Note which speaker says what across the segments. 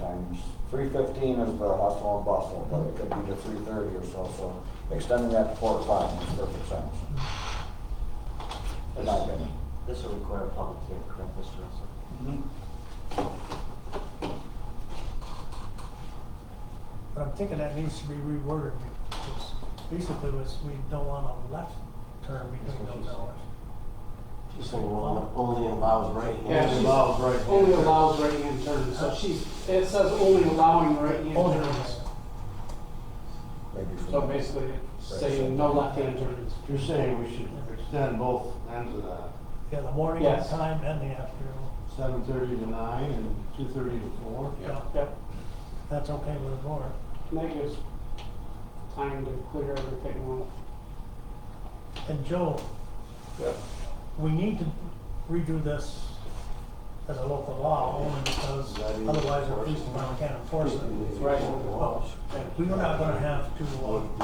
Speaker 1: times, three fifteen is the hustle and bustle, but it could be to three thirty or so, so extending that to four o'clock makes perfect sense. In my opinion.
Speaker 2: This will require a public hearing, correct, Mr. Russell?
Speaker 3: Mm-hmm.
Speaker 4: But I'm thinking that needs to be reworded, because basically was, we don't want a left turn between those hours.
Speaker 2: She's saying well, only involves right hand.
Speaker 3: Yeah, she's
Speaker 5: allows right-hand
Speaker 3: only
Speaker 5: turns.
Speaker 3: allows right-hand turns, so she's, it says only allowing right-hand
Speaker 4: Only
Speaker 3: turns.
Speaker 1: Maybe for-
Speaker 3: So basically, saying no left-hand turns.
Speaker 5: You're saying we should extend both ends of that,
Speaker 4: Yeah, the morning
Speaker 3: Yes.
Speaker 4: time and the afternoon.
Speaker 5: seven thirty to nine and two thirty to four?
Speaker 4: Yeah.
Speaker 3: Yep,
Speaker 4: That's okay with the board.
Speaker 3: and that gives time to clear everything out.
Speaker 4: And Joe, we need to redo this as a local law, only because otherwise the police department can't enforce it.
Speaker 3: Right.
Speaker 5: Well,
Speaker 4: We're not gonna have to uh,
Speaker 5: would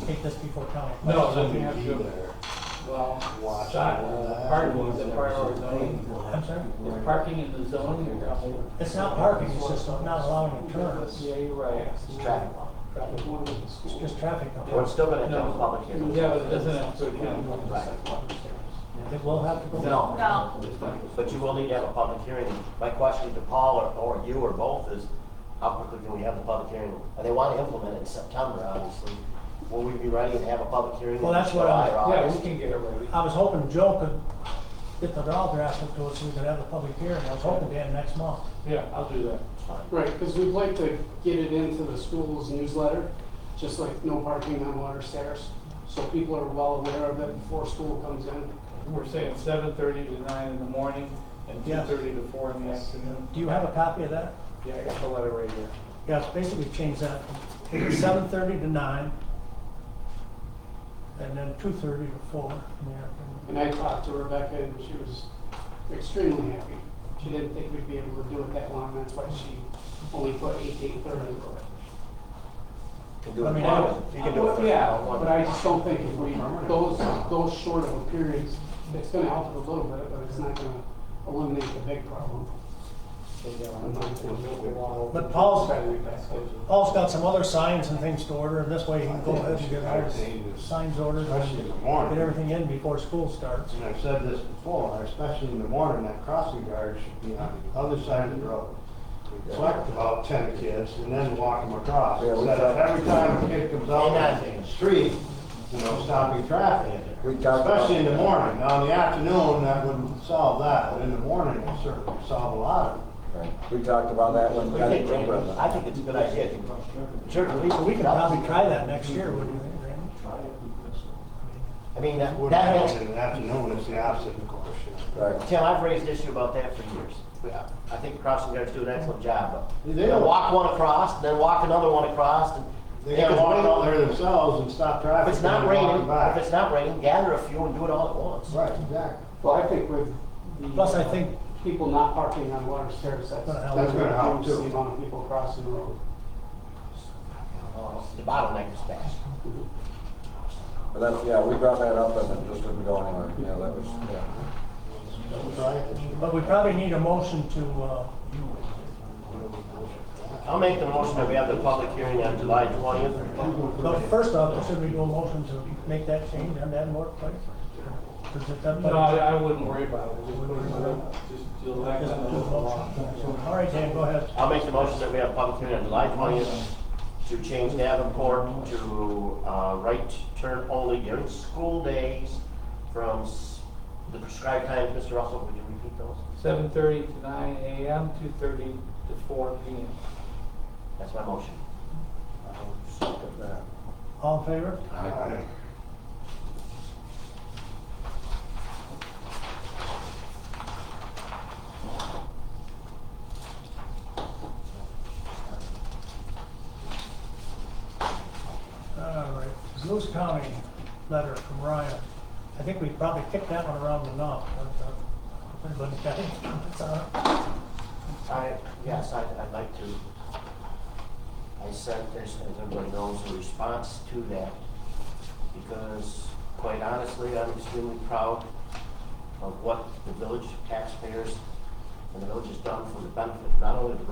Speaker 5: be
Speaker 4: take this before county.
Speaker 6: No, then we
Speaker 5: the-
Speaker 6: have
Speaker 5: be
Speaker 6: to
Speaker 5: there.
Speaker 6: well,
Speaker 5: Watch
Speaker 6: stop,
Speaker 5: all that.
Speaker 6: parking is a priority zoning.
Speaker 4: I'm sorry?
Speaker 6: If parking in the zoning, you're up there.
Speaker 4: It's not parking, it's just not allowing the turns.
Speaker 3: Yeah, you're right.
Speaker 2: It's traffic law.
Speaker 3: Traffic one of the schools.
Speaker 4: It's just traffic.
Speaker 2: Well, it's still gonna come to
Speaker 6: No.
Speaker 2: public hearing.
Speaker 6: Yeah, but it doesn't have to count.
Speaker 2: Right.
Speaker 4: It will have to go.
Speaker 2: No.
Speaker 7: No.
Speaker 2: But you will need to have a public hearing. My question to Paul or, or you or both is, how quickly can we have the public hearing? And they want to implement it in September, obviously. Will we be ready to have a public hearing?
Speaker 4: Well,
Speaker 2: in
Speaker 4: that's what I-
Speaker 2: July or
Speaker 6: Yeah, we
Speaker 2: August?
Speaker 6: can get it ready.
Speaker 4: I was hoping Joe could get the law drafted to us so we could have a public hearing. I was hoping to have next month.
Speaker 6: Yeah, I'll do that.
Speaker 2: It's fine.
Speaker 3: Right, because we'd like to get it into the school's newsletter, just like no parking on water stairs. So people are well aware of it before school comes in.
Speaker 6: We're saying seven thirty to nine in the morning and two
Speaker 4: Yeah.
Speaker 6: thirty to four in the afternoon.
Speaker 4: Do you have a copy of that?
Speaker 6: Yeah, I got the letter right here.
Speaker 4: Yeah, it's basically change that from seven thirty to nine. And then two thirty to four in the afternoon.
Speaker 3: And I talked to Rebecca and she was extremely happy. She didn't think we'd be able to do it that long, that's why she only put eight to eight thirty.
Speaker 2: You can do it
Speaker 4: I mean,
Speaker 2: tomorrow. You can do it. for-
Speaker 3: Yeah, but I just don't think if we, those, those short of a periods, it's gonna help it a little bit, but it's not gonna eliminate the big problem.
Speaker 4: But Paul's, Paul's got some other signs and things to order, and this way he can go ahead and get all his signs ordered. and
Speaker 5: Especially in the
Speaker 4: Get
Speaker 5: morning,
Speaker 4: everything in before school starts.
Speaker 5: and I've said this before, especially in the morning, that crossing guard should be on the other side of the road. Collect about ten kids and then walk them across,
Speaker 1: Yeah, we
Speaker 5: instead of
Speaker 1: got-
Speaker 5: every time a kid comes out on the street, you know, stopping traffic.
Speaker 1: We talked about.
Speaker 5: Especially in the morning, now in the afternoon, that wouldn't solve that, but in the morning, it certainly would solve a lot of it.
Speaker 1: Right. We talked about that when we
Speaker 2: We
Speaker 1: got
Speaker 2: think-
Speaker 1: the room resident.
Speaker 2: I think it's a good idea. Sure, we can,
Speaker 4: We could probably try that next year, wouldn't you think, Randy?
Speaker 2: I mean, that,
Speaker 5: What
Speaker 2: that,
Speaker 5: happens in the afternoon is the opposite, of course, you know.
Speaker 1: Right.
Speaker 2: Tim, I've raised an issue about that for years. Yeah, I think crossing guards do an excellent job, but
Speaker 5: They do.
Speaker 2: they'll walk one across, and then walk another one across, and.
Speaker 5: They gotta walk out there themselves and stop
Speaker 2: If
Speaker 5: traffic.
Speaker 2: it's not
Speaker 5: and walk
Speaker 2: raining,
Speaker 5: back.
Speaker 2: if it's not raining, gather a few and do it all at once.
Speaker 5: Right, exactly.
Speaker 3: Well, I think with the.
Speaker 4: Plus, I think-
Speaker 3: People not parking on water stairs, that's.
Speaker 4: Gonna help.
Speaker 5: That's gonna help,
Speaker 3: reduce the
Speaker 5: too.
Speaker 3: amount of people crossing the road.
Speaker 2: Uh, The bottleneck is fast.
Speaker 1: But that's, yeah, we brought that up and it just didn't go anywhere. Yeah, that was, yeah.
Speaker 5: Don't try it.
Speaker 4: But we probably need a motion to, uh,
Speaker 2: I'll make the motion that we have the public hearing on July twentieth.
Speaker 4: but first off, should we do a motion to make that change on that board, please? Does it uh, that?
Speaker 6: No, I, I wouldn't worry about it. Just put it in the- Just, you'll act
Speaker 4: Just
Speaker 6: on
Speaker 4: do a
Speaker 6: it.
Speaker 4: motion. All right, Dan, go ahead.
Speaker 2: I'll make the motion that we have public hearing on July twentieth to change Davenport to, uh, right turn only during school days from s- the prescribed times. Mr. Russell, would you repeat those?
Speaker 6: Seven thirty to nine AM, two thirty to four PM.
Speaker 2: That's my motion.
Speaker 4: All in favor?
Speaker 5: Aye.
Speaker 4: All right, Lewis County letter from Ryan. I think we probably kicked that one around enough. but, uh, if Everybody's got any comments on it?
Speaker 2: I, yes, I'd, I'd like to. I sent this, as everybody knows, a response to that, because quite honestly, I'm extremely proud of what the village taxpayers and the village has done for the benefit, not only of the